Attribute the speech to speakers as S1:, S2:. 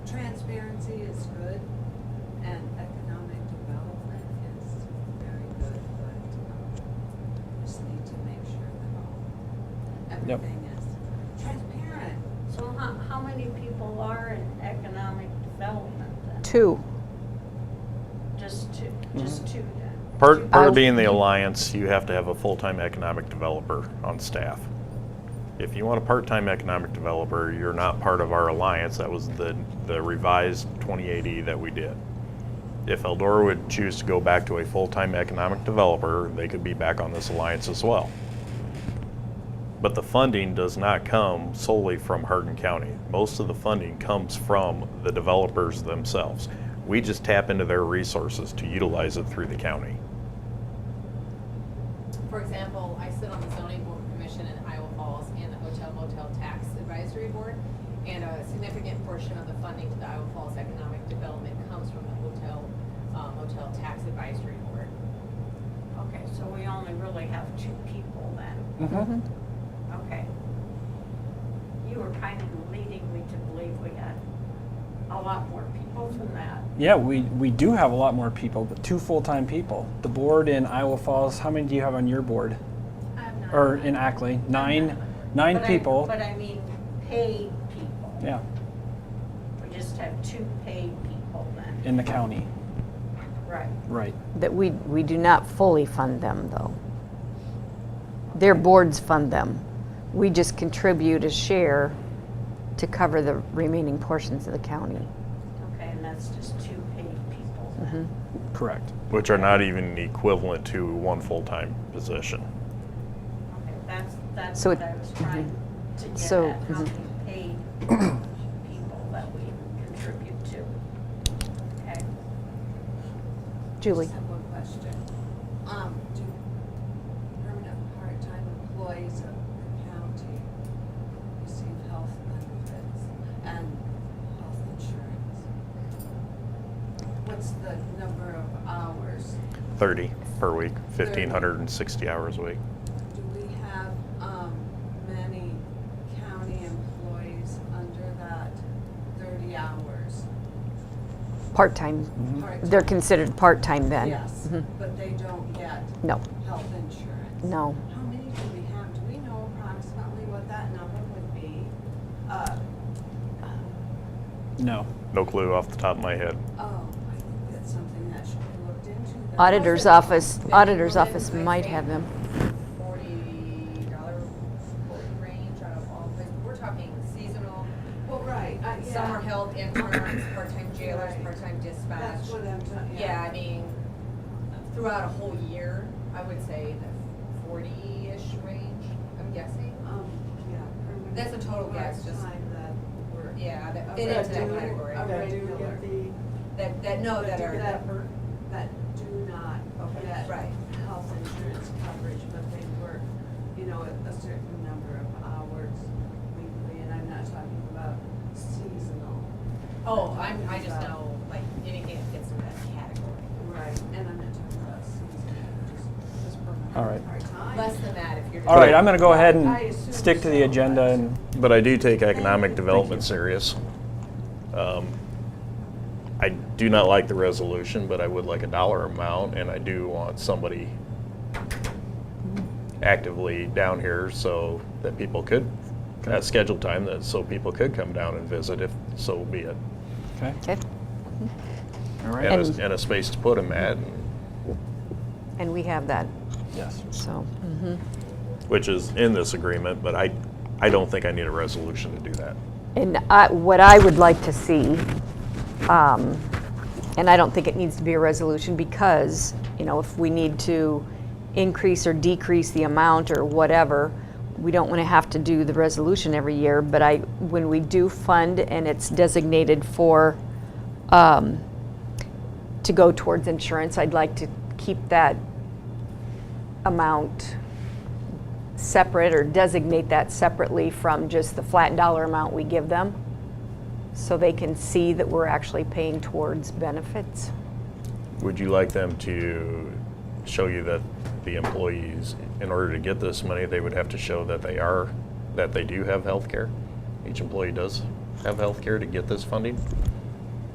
S1: um, the
S2: Yep.
S1: thing is.
S3: Transparent. So how, how many people are in economic development then?
S4: Two.
S3: Just two, just
S2: Mm-hmm.
S3: two then?
S5: Part, part
S4: I'll-
S5: of being the alliance, you have to have a full-time economic developer on staff. If you want a part-time economic developer, you're not part of our alliance. That was the, the revised 2080 that we did. If Eldora would choose to go back to a full-time economic developer, they could be back on this alliance as well. But the funding does not come solely from Hardin County. Most of the funding comes from the developers themselves. We just tap into their resources to utilize it through the county.
S6: For example, I sit on the zoning board commission in Iowa Falls and the hotel motel tax advisory board. And a significant portion of the funding to the Iowa Falls economic development comes from the hotel uh, motel tax advisory board.
S3: Okay, so we only really have two people then,
S2: Mm.
S3: okay. You were kind of leading me to believe we had a lot more people than that.
S2: Yeah, we, we do have a lot more people, but two full-time people. The board in Iowa Falls, how many do you have on your board?
S3: I'm not-
S2: Or in Ackley? Nine, nine
S3: But I-
S2: people.
S3: But I mean, paid people.
S2: Yeah,
S3: We just have two paid people then.
S2: in the county,
S3: Right.
S2: right.
S4: That we, we do not fully fund them, though. Their boards fund them. We just contribute a share to cover the remaining portions of the county.
S3: Okay, and that's just two paid people
S2: Mm-hmm.
S3: then.
S2: Correct.
S5: Which are not even equivalent to one full-time position.
S3: Okay, that's, that's
S4: So
S3: what
S4: it-
S3: I was trying to get
S4: So,
S3: at, how
S4: mhm.
S3: many paid people that we contribute to. Okay,
S4: Julie?
S1: Just have one question. Um, do permanent part-time employees of the county receive health benefits and health insurance? What's the number of hours?
S5: 30 per week, 1,560 hours a week.
S1: Do we have, um, many county employees under that thirty hours?
S4: Part-time.
S1: part-time?
S4: They're considered part-time then?
S1: Yes, but they don't get
S4: No,
S1: health insurance.
S4: no.
S1: How many do we have? Do we know approximately what that number would be? Uh,
S2: No.
S5: No clue off the top of my head.
S1: oh, I think that's something that should be looked into. though.
S4: Auditor's office, auditor's
S6: Well,
S4: office
S6: then I
S4: might
S6: say
S4: have them.
S6: Forty dollar range out of all, but we're talking seasonal,
S1: Well, right,
S6: Uh,
S1: I, yeah.
S6: summer help, interns, part-time jailers,
S1: Right.
S6: part-time dispatch.
S1: That's what I'm talking,
S6: Yeah,
S1: yeah.
S6: I mean, throughout a whole year, I would say the forty-ish range, I'm guessing.
S1: Um, yeah. permanent
S6: That's a total guess, just-
S1: part-time that were-
S6: Yeah, that
S1: of
S6: fit into that
S1: regular-
S6: category.
S1: Of
S7: That do
S1: regular.
S7: get the,
S6: That, that know that are,
S1: That were- that do not
S6: Okay,
S1: get
S6: right.
S1: health insurance coverage, but they work, you know, a a certain number of hours weekly, and I'm not talking about seasonal.
S6: oh, I'm, I just know, like, anything that fits into that category.
S1: Right, and I'm not talking about seasonal, just, just permanent.
S2: All right.
S1: part-time.
S6: Less than that if you're.
S2: All right, I'm going to go ahead
S1: I
S2: and
S1: assume
S2: stick to the
S1: so,
S2: agenda
S1: but-
S2: and,
S5: But I do take economic
S1: Thank
S5: development serious. Um, I do not like the resolution, but I would like a dollar amount, and I do want somebody actively down here so that people could, at scheduled time, that, so people could come down and visit if so be it.
S2: okay,
S4: Okay.
S2: all right,
S5: And
S4: And-
S5: a, and a space to put them at, and-
S4: And we have that,
S2: yes.
S4: so.
S5: which is in this agreement, but I, I don't think I need a resolution to do that.
S4: And I, what I would like to see, um, and I don't think it needs to be a resolution because, you know, if we need to increase or decrease the amount or whatever, we don't want to have to do the resolution every year, but I, when we do fund and it's designated for, um, to go towards insurance, I'd like to keep that amount separate or designate that separately from just the flat dollar amount we give them so they can see that we're actually paying towards benefits.
S5: Would you like them to show you that the employees, in order to get this money, they would have to show that they are, that they do have health care? Each employee does have health care to get this funding?